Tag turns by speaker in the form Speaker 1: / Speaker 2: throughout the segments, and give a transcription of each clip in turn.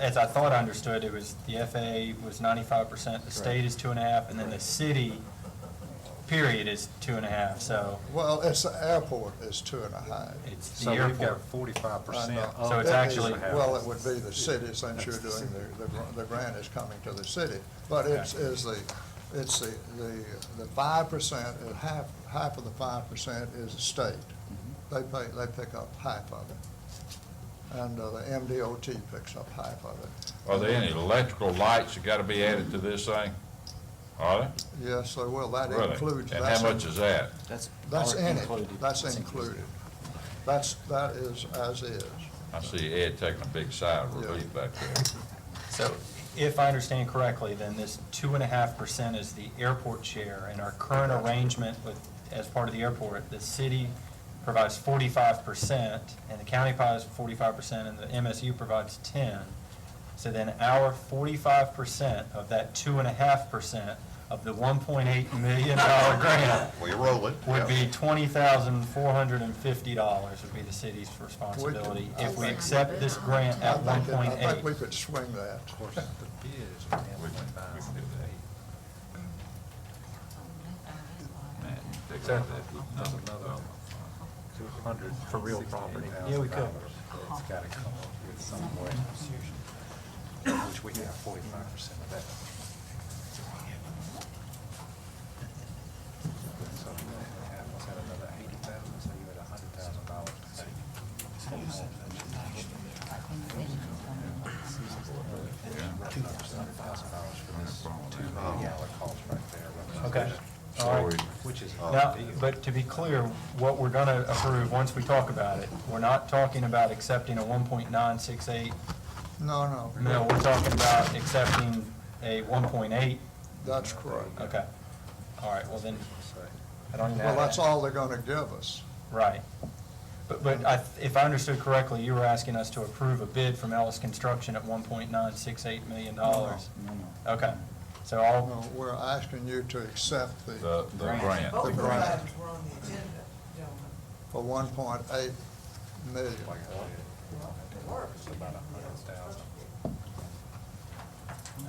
Speaker 1: as I thought I understood, it was, the FAA was ninety-five percent, the state is two and a half, and then the city, period, is two and a half, so
Speaker 2: Well, it's the airport is two and a half.
Speaker 1: it's the
Speaker 3: So we've
Speaker 1: airport.
Speaker 3: got forty-five percent
Speaker 2: Uh, no,
Speaker 3: of
Speaker 1: So it's
Speaker 2: that is-
Speaker 1: actually-
Speaker 2: Well, it would be the city, since you're doing, the, the gr- the grant is coming to the city. But it's, is the, it's the, the, the five percent, uh, half, half of the five percent is the state. They pay, they pick up half of it. And uh, the MDOT picks up half of it.
Speaker 4: Are there any electrical lights that gotta be added to this thing? Are there?
Speaker 2: Yes, they will. That
Speaker 4: Really?
Speaker 2: includes.
Speaker 4: And
Speaker 2: that's
Speaker 4: how
Speaker 2: in-
Speaker 4: much is that?
Speaker 5: That's.
Speaker 2: That's
Speaker 5: all
Speaker 2: in
Speaker 5: included.
Speaker 2: it. That's included. That's, that is as is.
Speaker 4: I see Ed taking a big sigh of relief back there.
Speaker 1: So if I understand correctly, then this two and a half percent is the airport share, and our current arrangement with, as part of the airport, the city provides forty-five percent, and the county provides forty-five percent, and the MSU provides ten. So then our forty-five percent of that two and a half percent of the one point eight million dollar grant
Speaker 6: We roll it.
Speaker 1: would be twenty thousand four hundred and fifty dollars would be the city's responsibility if we accept this grant
Speaker 2: I
Speaker 1: at one
Speaker 2: think, it-
Speaker 1: point eight.
Speaker 2: I think we could swing that.
Speaker 3: Of course, the bid is only
Speaker 4: We can- we can do
Speaker 3: $1.58.
Speaker 4: Man, take
Speaker 3: Is
Speaker 4: that,
Speaker 3: that
Speaker 4: no,
Speaker 3: that's
Speaker 4: no.
Speaker 3: another two hundred for real property?
Speaker 1: Yeah, we could.
Speaker 3: It's gotta come up with somewhere, which we have forty-five percent of that. So you have to have another eighty thousand, so you're at a hundred thousand dollars. Two hundred thousand dollars for this two million dollar cost right there.
Speaker 1: Okay. All
Speaker 4: Sorry.
Speaker 1: right.
Speaker 3: Which is.
Speaker 1: Now, but to be clear, what we're gonna approve, once we talk about it, we're not talking about accepting a one point nine six eight
Speaker 2: No, no.
Speaker 1: mill, we're talking about accepting a one point eight,
Speaker 2: That's correct.
Speaker 1: okay. All right, well then, I don't even
Speaker 2: Well,
Speaker 1: have
Speaker 2: that's
Speaker 1: that.
Speaker 2: all they're gonna give us.
Speaker 1: Right. But, but I, if I understood correctly, you were asking us to approve a bid from Ellis Construction at one point nine six eight million dollars?
Speaker 5: No, no.
Speaker 1: Okay, so I'll,
Speaker 2: No, We're asking you to accept
Speaker 4: The,
Speaker 2: the,
Speaker 4: the grant.
Speaker 2: Oh,
Speaker 7: Both
Speaker 2: The
Speaker 7: of
Speaker 2: grant.
Speaker 7: items were on the agenda, gentlemen.
Speaker 2: for one point eight million.
Speaker 3: It's about a hundred thousand.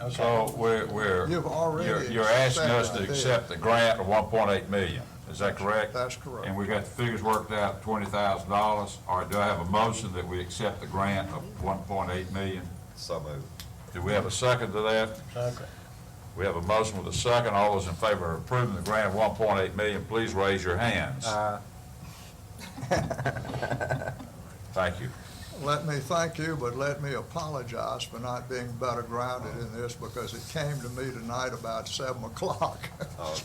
Speaker 1: okay.
Speaker 4: So we're, we're,
Speaker 2: You've already
Speaker 4: you're, you're asking us to
Speaker 2: accepted that.
Speaker 4: accept the grant of one point eight million, is that correct?
Speaker 2: That's correct.
Speaker 4: And we got the figures worked out, twenty thousand dollars, or do I have a motion that we accept the grant of one point eight million?
Speaker 6: So moved.
Speaker 4: Do we have a second to that? We have a motion with a second, all those in favor of approving the grant of one point eight million, please raise your hands.
Speaker 3: uh,
Speaker 4: Thank you.
Speaker 2: Let me thank you, but let me apologize for not being better grounded in this because it came to me tonight about seven o'clock.
Speaker 6: Uh,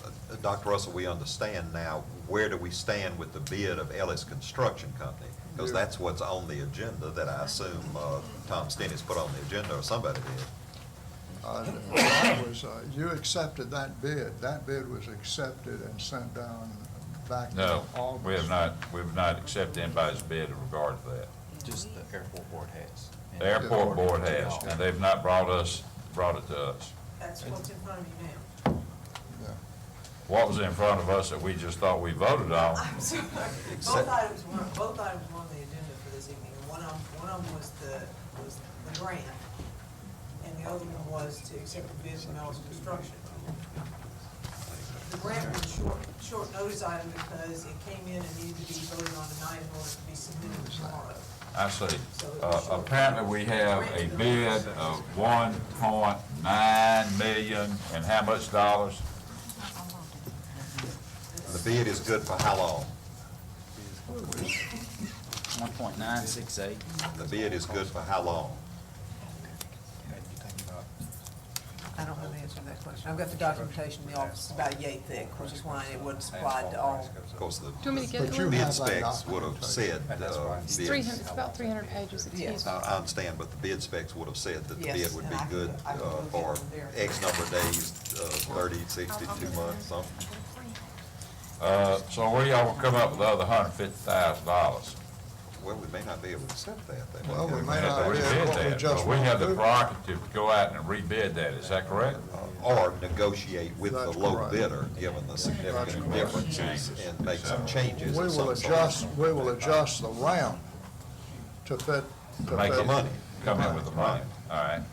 Speaker 6: Dr. Russell, we understand now, where do we stand with the bid of Ellis Construction Company? Because
Speaker 2: Yeah.
Speaker 6: that's what's on the agenda that I assume uh, Tom Stennis put on the agenda or somebody did.
Speaker 2: Uh, that was, uh, You accepted that bid. That bid was accepted and sent down back in
Speaker 4: No,
Speaker 2: August.
Speaker 4: we have not, we have not accepted anybody's bid in regard to that.
Speaker 5: Just the airport board has.
Speaker 4: The airport board has, and they've not brought us, brought it to us.
Speaker 7: That's what's in front of you now.
Speaker 2: Yeah.
Speaker 4: What was in front of us that we just thought we voted on?
Speaker 7: I'm sorry. Both items were, both items were on the agenda for this evening. And One of, one of them was the, was the grant, and the other one was to accept the bid from Ellis Construction. The grant was a short, short notice item because it came in and needed to be voted on tonight in order to be submitted tomorrow.
Speaker 4: I see. Uh, Apparently, we have a bid of one point nine million, and how much dollars?
Speaker 6: The bid is good for how long?
Speaker 5: One point nine six eight.
Speaker 6: The bid is good for how long?
Speaker 7: I don't know the answer to that question. I've got the documentation in the office about yay thick, which is why it wasn't supplied to all.
Speaker 6: Of course, the
Speaker 8: Do you want me to get
Speaker 2: But you
Speaker 8: one?
Speaker 6: bid
Speaker 2: have that
Speaker 6: specs would have said,
Speaker 3: And that's
Speaker 6: uh,
Speaker 3: why-
Speaker 8: It's
Speaker 6: bids-
Speaker 8: 300, it's about 300 pages, it's
Speaker 7: Yeah.
Speaker 8: huge.
Speaker 6: I I understand, but the bid specs would have said that the
Speaker 7: Yes,
Speaker 6: bid would
Speaker 7: and
Speaker 6: be
Speaker 7: I can-
Speaker 6: good
Speaker 7: I can
Speaker 6: uh,
Speaker 7: look
Speaker 6: for
Speaker 7: at them there.
Speaker 6: X number of days, uh, 30, 60, two months, something.
Speaker 4: Uh, So where y'all gonna come up with the other hundred fifty thousand dollars?
Speaker 6: Well, we may not be able to accept that. They may
Speaker 2: Well, we
Speaker 6: have-
Speaker 2: may not
Speaker 4: We
Speaker 2: be
Speaker 4: bid
Speaker 2: able to
Speaker 4: that,
Speaker 2: just.
Speaker 4: but we
Speaker 2: won't
Speaker 4: have the
Speaker 2: do it.
Speaker 4: prerogative to go out and rebid that, is that correct?
Speaker 6: uh, Or negotiate with the
Speaker 2: That's
Speaker 6: low
Speaker 2: correct.
Speaker 6: bidder, given the significant
Speaker 4: correct.
Speaker 6: differences, and make some changes
Speaker 2: We
Speaker 6: of some
Speaker 2: will
Speaker 6: sort.
Speaker 2: adjust, we will adjust the ramp to fit. to
Speaker 4: Make
Speaker 2: fit-
Speaker 6: The money.
Speaker 4: come in with the money, all right?